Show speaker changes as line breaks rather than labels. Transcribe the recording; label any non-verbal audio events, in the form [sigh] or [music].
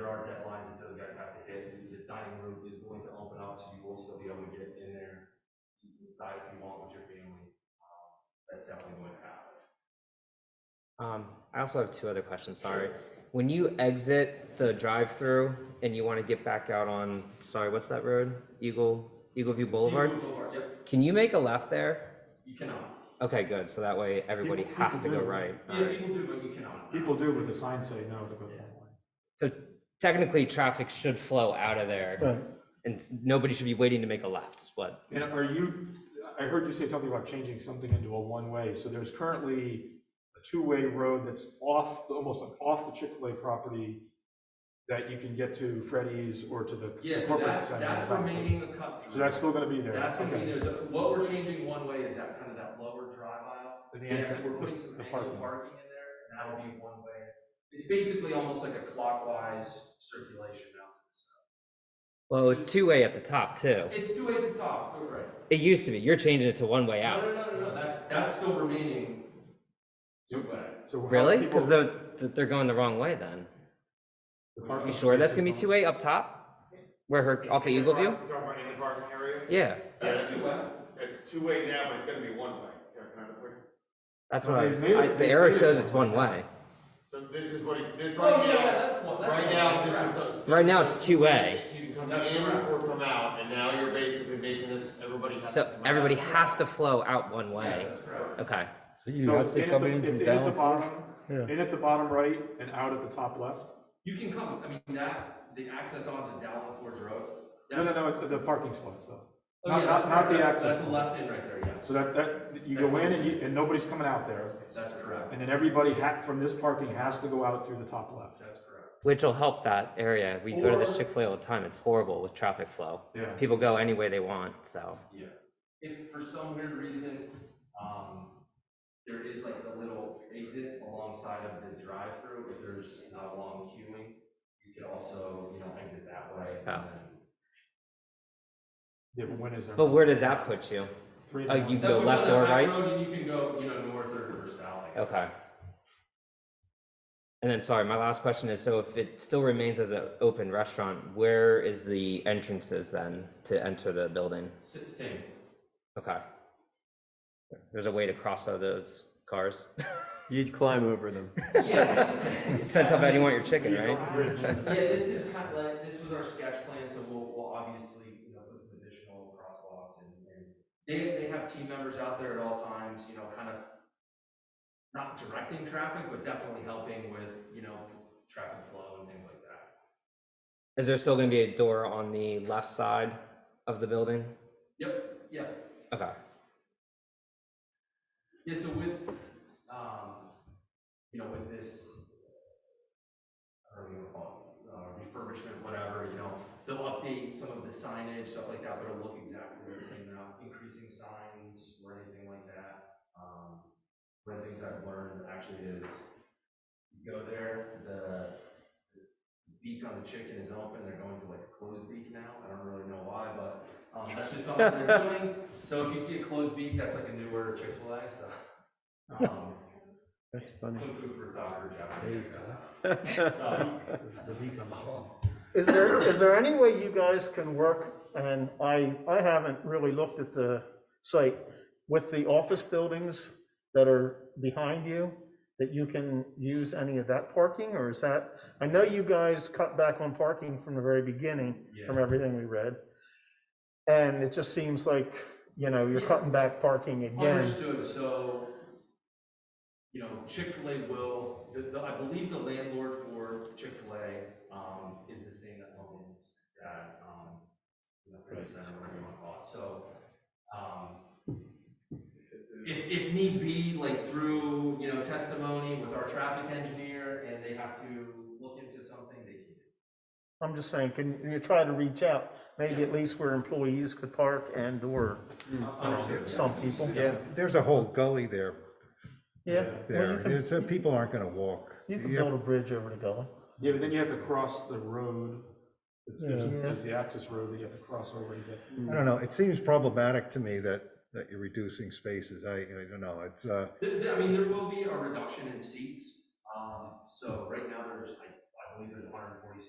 hard deadline that those guys have to hit, and the dining room is going to open up, so you will still be able to get in there, eat inside if you want with your family. Um, That's definitely going to happen.
Um, I also have two other questions, sorry. When you exit the drive-through and you want to get back out on, sorry, what's that road? Eagle, Eagle View Boulevard?
Boulevard, yep,
Can you make a left there?
you cannot.
Okay, good, so that way everybody
People-
has to
people
go
do.
right. All
Yeah,
right.
people do, but you cannot.
People do, but the signs say no to go that way.
So technically, traffic should flow out of there
Right.
and nobody should be waiting to make a left, is what?
And are you, I heard you say something about changing something into a one-way, so there's currently a two-way road that's off, almost off the Chick-fil-A property that you can get to Freddy's or to the
Yeah, so
corporate
that's,
center.
that's remaining a cut through.
So that's still gonna be there?
That's gonna be
Okay.
there, The- what we're changing one way is that kind of that lower drive aisle.
The
Yeah, so
entrance-
we're putting some
the
angled
parking.
parking in there, and that'll be one way. It's basically almost like a clockwise circulation now. So
Well, it was two-way at the top too.
It's two way at the top, you're right.
It used to be, you're changing it to one-way
No,
out.
no, no, no, no, that's, that's still remaining two way.
So how do
Really?
people-
Because they're, they're going the wrong way then.
the
You
parking
sure that's gonna be
spaces
two-way up top? Where her, off of Eagle View?
Talking about in the parking area?
Yeah,
That's two way.
It's two-way now, but it's gonna be one-way. Yeah, kind of quick.
that's
No,
what I
they
was,
made it-
I-
they
the arrow
made it
shows
one
it's
way.
one way.
So this is what it, this
Oh,
right
yeah, yeah,
now,
that's one, that's one.
right now, this is a.
Right now, it's two-way.
You can come
That's
in
correct.
or come out, and now you're basically making this, everybody has to
So
come out.
everybody has to flow out one
Yes,
way.
that's correct.
Okay,
So you
So
have
it's
to
in at
come
the-
in from
it's in at the
down.
bottom-
Yeah.
In at the bottom right and out at the top left?
You can come, I mean, that, the access onto Davenport Road,
No, no,
that's.
no, it's the parking spots though.
Oh,
Not,
yeah,
not,
that's
not the
correct. That's-
access.
That's a left in right there, yes,
So that, that, you go in and you, and nobody's coming out there.
that's correct.
And then everybody ha, from this parking has to go out through the top left.
That's correct.
which will help that area. We go to this
Or-
Chick-fil-A all the time. It's horrible with traffic flow.
Yeah.
People go any way they want, so.
Yeah. If for some weird reason, um, there is like a little exit alongside of the drive-through, if there's not a long queuing, you could also, you know, exit that way. and
Yeah.
then-
Yeah, but when is there?
But where does that put you?
Three and
uh,
one.
you-
That
go
puts you
left
on the
or
back
right?
road, And you can go, you know, north or, or south. I guess.
Okay. And then, sorry, my last question is, so if it still remains as an open restaurant, where is the entrances then to enter the building?
S- Same.
Okay. There's a way to cross all those cars. [laughs]
You'd climb over them.
Yeah.
Depends how bad you want your chicken, right?
Yeah, this is kind of like, this was our sketch plan, so we'll, we'll obviously, you know, put some additional crosswalks and, and they, they have team members out there at all times, you know, kind of not directing traffic, but definitely helping with, you know, traffic flow and things like that.
Is there still gonna be a door on the left side of the building?
Yep, yeah.
Okay.
Yeah, so with, um, you know, with this, I don't know what you call it, uh, refurbishment, whatever, you know, they'll update some of the signage, stuff like that, but it'll look exactly the same, they're not increasing signs or anything like that. Um, one of the things I've learned actually is, you go there, the beak on the chicken is open, they're going to like a closed beak now, I don't really know why, but, um, that's just something they're doing. So if you see a closed beak, that's like a newer Chick-fil-A, so. um,
[laughs] That's funny.
Some food for thought for Jeopardy, I guess. So,
Is there, is there any way you guys can work, and I, I haven't really looked at the site, with the office buildings that are behind you, that you can use any of that parking, or is that, I know you guys cut back on parking from the very beginning,
[laughs]
from
Yeah,
everything we read. And it just seems like, you know, you're cutting back parking again.
understood, so, you know, Chick-fil-A will, the, the, I believe the landlord for Chick-fil-A, um, is the same that owns that, um, you know, prison center, whatever you wanna call it, so, um, if, if need be, like through, you know, testimony with our traffic engineer, and they have to look into something, they can.
I'm just saying, can you try to reach out, maybe at least where employees could park and/or
Understood, yes.
some people?
Yeah, there's a whole gully there,
Yeah, well, you
there,
can,
There's- so people aren't gonna walk.
you can
You have-
build a bridge over the gully.
Yeah, but then you have to cross the road. There's
Yeah.
there's the access road that you have to cross over to get.
I don't know, it seems problematic to me that, that you're reducing spaces, I, I don't know, it's, uh,
Th- th- I mean, there will be a reduction in seats, um, so right now there's, I